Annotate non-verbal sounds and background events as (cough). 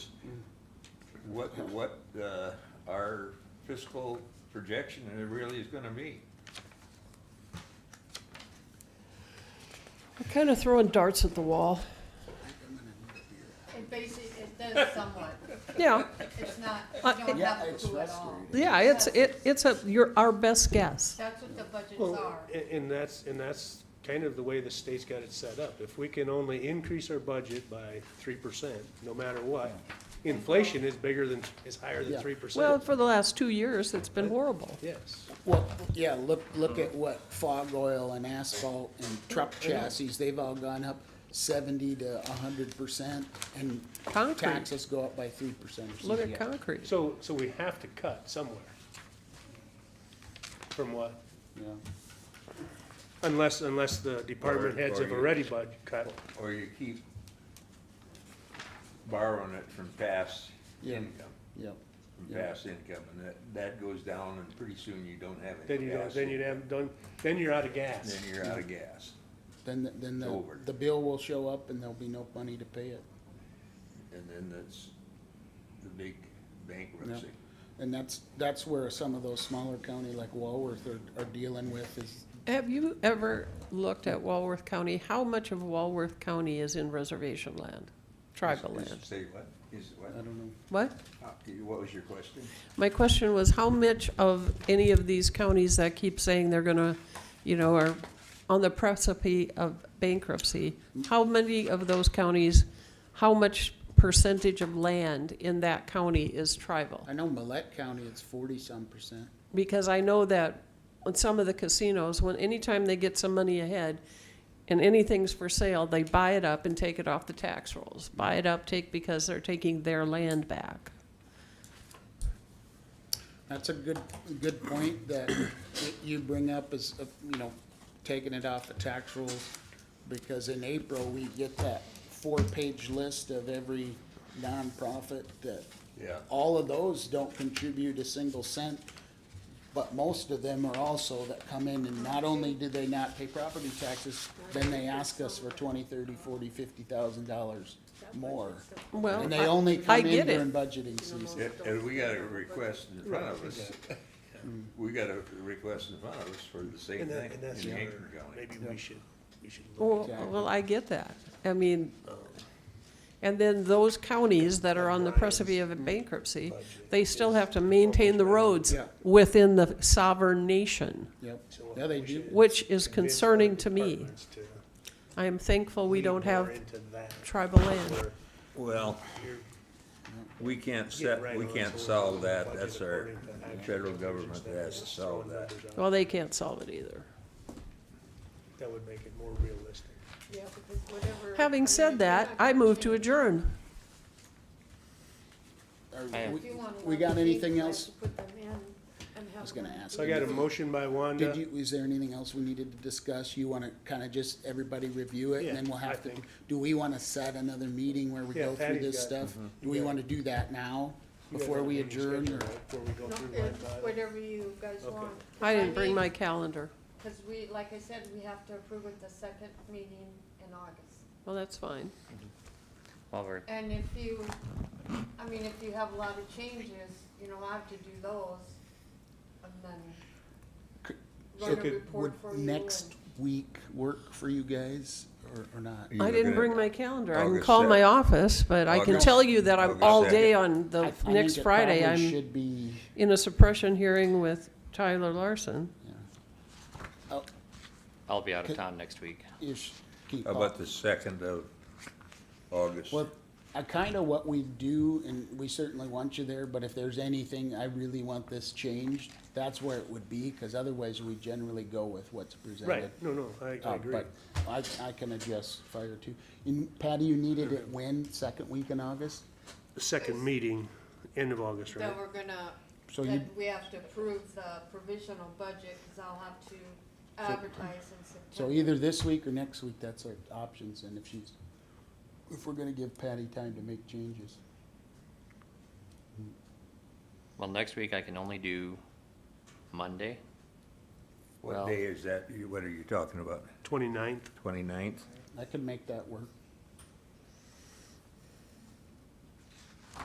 what, what, uh, our fiscal projection really is gonna be. I'm kind of throwing darts at the wall. It basically, it does somewhat, Yeah, it's not, you Uh, don't Yeah, have a it's clue at all. frustrating. yeah, it's, it, it's a, your, our best guess. That's what the budgets Well, are. a- and that's, and that's kind of the way the state's got it set up. If we can only increase our budget by three percent, no matter what, inflation is bigger than, is higher than Yeah. three Well, percent. for the last two years, it's been horrible. Yes. Well, yeah, look, look at what fog oil and asphalt and truck chassis, they've all gone up seventy to a hundred percent, and Concrete. taxes go up by three percent or Look something. at concrete. So, so we have to cut somewhere. From what? Yeah. Unless, unless the department heads have Or- or you- already bud cut. Or you keep borrowing it from past Yeah. income, Yep, from Yeah. past income, and that, that goes down, and pretty soon you don't have Then any you don't, gas. then you'd have, done, then you're out of gas. Then you're out of gas, then, the- then the, Over. the bill will show up and there'll be no money to pay it. and then that's the big Yeah. bankruptcy. And that's, that's where some of those smaller county like Walworth are, are dealing with is, Have you ever looked at Walworth County? How much of Walworth County is in reservation land, tribal Is- is- land? Say what? Is I what? don't know. What? Uh, What was your question? My question was, how much of any of these counties that keep saying they're gonna, you know, are on the precipice of bankruptcy, how many of those counties, how much percentage of land in that county is tribal? I know Millette County, it's forty-some percent. Because I know that on some of the casinos, when, anytime they get some money ahead and anything's for sale, they buy it up and take it off the tax rolls. Buy it up, take, because they're taking their land back. That's a good, good point that y- you bring up is, uh, you know, taking it off the tax rolls. Because in April, we get that four-page list of every nonprofit that, Yeah. all of those don't contribute a single cent. But most of them are also that come in and not only do they not pay property taxes, then they ask us for twenty, thirty, forty, fifty thousand dollars more. Well, And I- they only I come in get it. during budgeting season. Yeah, And we got a request in front of us, (laughs) we got a request in front of us for the same And that, thing and that's, in where Hankin County. maybe we should, we should look. Well, Exactly. well, I get that. I mean, and then those counties that are on the precipice of bankruptcy, they still have to maintain the roads Yeah. within the sovereign nation, Yep, So yeah, they we do. should which is convince concerning other to me. departments to I am thankful we lean don't have more into that, tribal land. where Well, you're- we can't Yeah, set, right we on. can't So solve we'll that, budget that's our, according to the actual federal projections government that has we're to solve throwing that. numbers out. Well, they can't solve it either. That would make it more realistic. Yeah, because whatever- Having mean, said that, you're not I gonna move to change- adjourn. Are if we- you wanna We let got the anything people else? put them in and have was gonna them- ask. So I got a motion by Did Wanda. you, is there anything else we needed to discuss? You wanna kinda just, everybody review it, and then Yeah, we'll have I to, think. do we wanna set another meeting where we Yeah, go through Patty's this got it. stuff? Do we wanna do that now, You guys before have we a meeting adjourn, or? scheduled, right? Before we go No, through line it's by line? Whatever you guys Okay. want. I didn't bring need- my calendar. Cause we, like I said, we have to approve it the second meeting in August. Well, that's fine. While we're And if you, I mean, if you have a lot of changes, you know, I have to do those and then Could- write so a could- report Would for you next and- week work for you guys, or, or not? You I were didn't gonna- bring my calendar. I can August call my sec- office, but I can August- tell you that I'm August all second. day on the I- I f- think next it Friday. probably I'm Should be, in a suppression hearing with Tyler Larson. oh, I'll be out Could- of town next week. you sh- keep How up. about the second of August? Well, I kind of what we do, and we certainly want you there, but if there's anything, I really want this changed, that's where it would be, because otherwise we generally go with what's presented. Right, no, no, I, Uh, I agree. But I, I can adjust fire too. And Patty, you needed it when, second week in August? The Second meeting, end of August, right? That we're gonna, So you- that we have to approve the provisional budget, cause I'll have to advertise in September. So either this week or next week, that's our options, and if she's, if we're gonna give Patty time to make changes. Well, next week I can only do Monday. What well- day is that, You- what are you talking about, Twenty-ninth, twenty-ninth? I could make that work.